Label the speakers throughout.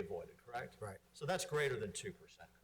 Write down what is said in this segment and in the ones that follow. Speaker 1: avoided, correct?
Speaker 2: Right.
Speaker 1: So that's greater than 2%,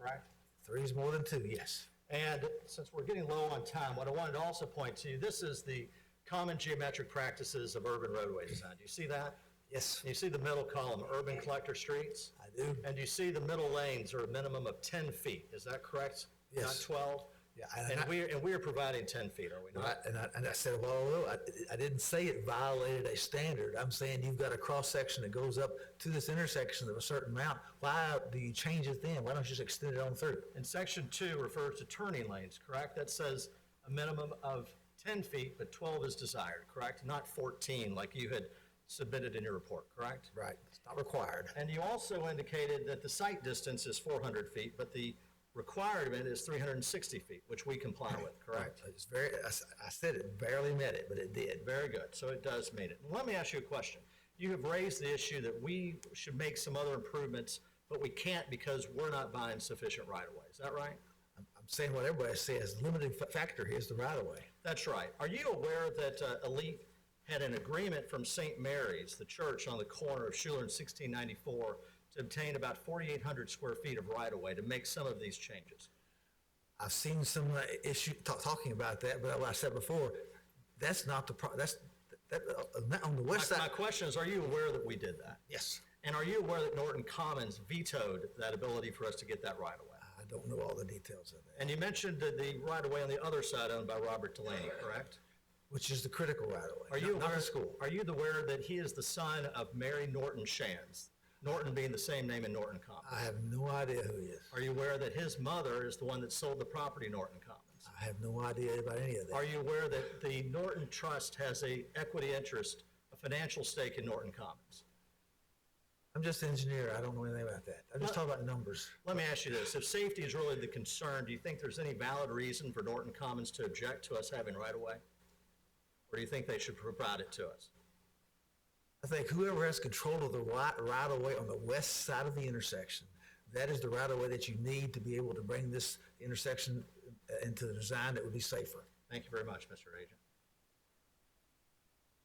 Speaker 1: correct?
Speaker 2: Three is more than two, yes.
Speaker 1: And since we're getting low on time, what I wanted to also point to, this is the common geometric practices of urban roadway design. Do you see that?
Speaker 2: Yes,
Speaker 1: You see the middle column, urban collector streets?
Speaker 2: I do.
Speaker 1: And you see the middle lanes are a minimum of 10 feet, is that correct? Not
Speaker 2: Yes.
Speaker 1: 12?
Speaker 2: Yeah, and
Speaker 1: And
Speaker 2: I-
Speaker 1: we're, and we're providing 10 feet, are we
Speaker 2: And I,
Speaker 1: not?
Speaker 2: and I, and I said, well, no, I, I didn't say it violated a standard. I'm saying you've got a cross-section that goes up to this intersection of a certain amount. Why do you change it then? Why don't you just extend it on through?
Speaker 1: And section two refers to turning lanes, correct? That says a minimum of 10 feet, but 12 is desired, correct? Not 14 like you had submitted in your report, correct?
Speaker 2: Right, it's not required.
Speaker 1: And you also indicated that the site distance is 400 feet, but the requirement is 360 feet, which we comply with, correct?
Speaker 2: It's very, I, s- I said it barely met it, but it did.
Speaker 1: Very good, so it does meet it. Let me ask you a question. You have raised the issue that we should make some other improvements, but we can't because we're not buying sufficient right-of-way, is that right?
Speaker 2: I'm, I'm saying what everybody says, limiting fa- factor here is the right-of-way.
Speaker 1: That's right. Are you aware that uh, Elite had an agreement from St. Mary's, the church on the corner of Schuler and 1694, to obtain about 4,800 square feet of right-of-way to make some of these changes?
Speaker 2: I've seen some uh, issue, ta- talking about that, but like I said before, that's not the, pro- that's, that, uh, uh, on the west
Speaker 1: My my
Speaker 2: side.
Speaker 1: question is, are you aware that we did that?
Speaker 2: Yes,
Speaker 1: And are you aware that Norton Commons vetoed that ability for us to get that right-of-way?
Speaker 2: I don't know all the details of that.
Speaker 1: And you mentioned that the right-of-way on the other side owned by Robert Delaney, correct?
Speaker 2: which is the critical right of way.
Speaker 1: Are you
Speaker 2: not
Speaker 1: aware,
Speaker 2: the school?
Speaker 1: are you aware that he is the son of Mary Norton Shands? Norton being the same name in Norton Commons?
Speaker 2: I have no idea who he is.
Speaker 1: Are you aware that his mother is the one that sold the property Norton Commons?
Speaker 2: I have no idea about any of that.
Speaker 1: Are you aware that the Norton Trust has a equity interest, a financial stake in Norton Commons?
Speaker 2: I'm just an engineer. I don't know anything about that. I'm just talking about numbers.
Speaker 1: Let me ask you this, if safety is really the concern, do you think there's any valid reason for Norton Commons to object to us having right of way? Or do you think they should provide it to us?
Speaker 2: I think whoever has control of the right, right of way on the west side of the intersection, that is the right of way that you need to be able to bring this intersection uh, into the design that would be safer.
Speaker 1: Thank you very much, Mr. Agent.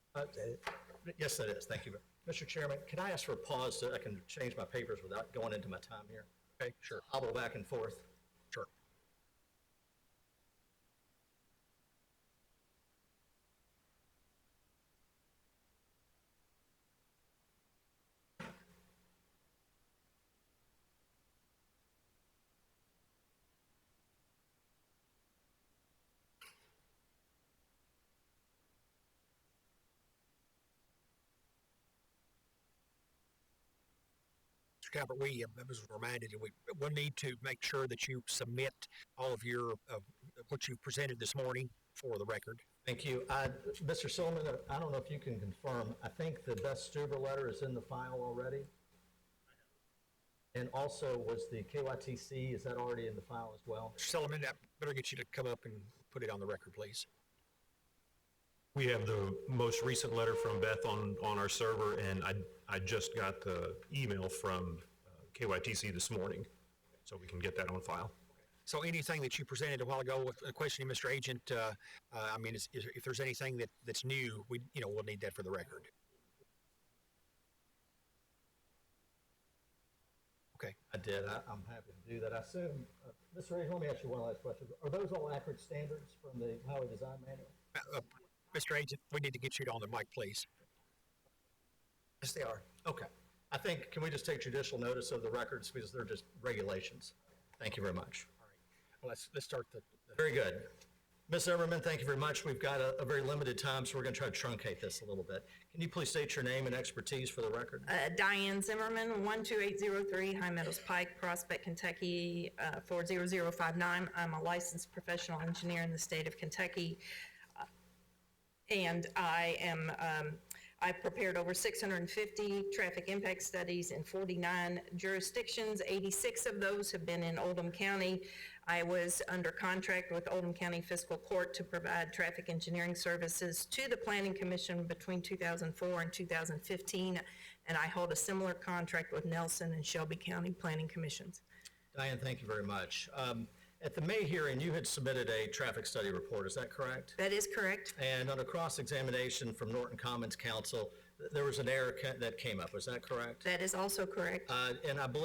Speaker 2: Is that it?
Speaker 1: Uh, Yes, that is, thank you. Mr. Chairman, can I ask for a pause so I can change my papers without going into my time here? Okay, sure. I'll go back and forth. Sure.
Speaker 3: Mr. Talbot, we, uh, I was reminded, that we will need to make sure that you submit all of your, uh, what you presented this morning for the record.
Speaker 1: Thank you. Uh, Mr. Solomon, I don't know if you can confirm, I think the Beth Stuber letter is in the file already? And also, was the KYTC, is that already in the file as well?
Speaker 3: Mr. Solomon, I better get you to come up and put it on the record, please.
Speaker 4: We have the most recent letter from Beth on, on our server, and I, I just got the email from uh, KYTC this morning, so we can get that on file.
Speaker 3: So anything that you presented a while ago with a question, Mr. Agent, uh, uh, I mean, is, is, if there's anything that, that's new, we, you know, we'll need that for the record.
Speaker 1: I did. I, I'm happy to do that. I assume, uh, Mr. Reed, let me ask you one last question. Are those all accurate standards from the highway design manual?
Speaker 3: Uh, uh, Mr. Agent, we need to get you on the mic, please.
Speaker 2: Yes, they are.
Speaker 1: Okay. I think, can we just take judicial notice of the records because they're just regulations? Thank you very much.
Speaker 3: Well, Let's, let's start the, the-
Speaker 1: Very good. Ms. Everman, thank you very much. We've got a, a very limited time, so we're going to try to truncate this a little bit. Can you please state your name and expertise for the record?
Speaker 5: Uh, Diane Zimmerman, 12803 High Meadows Pike, Prospect, Kentucky, uh, 40059. I'm a licensed professional engineer in the state of Kentucky. Uh, And I am, um, I've prepared over 650 traffic impact studies in 49 jurisdictions. 86 of those have been in Oldham County. I was under contract with Oldham County Fiscal Court to provide traffic engineering services to the Planning Commission between 2004 and 2015, and I hold a similar contract with Nelson and Shelby County Planning Commissions.
Speaker 1: Diane, thank you very much. Um, at the May hearing, you had submitted a traffic study report, is that correct?
Speaker 5: That is correct?
Speaker 1: And under cross-examination from Norton Commons Counsel,
Speaker 5: there was an error ca- that came up, is that correct?
Speaker 1: That is also correct.
Speaker 5: Uh, And I believe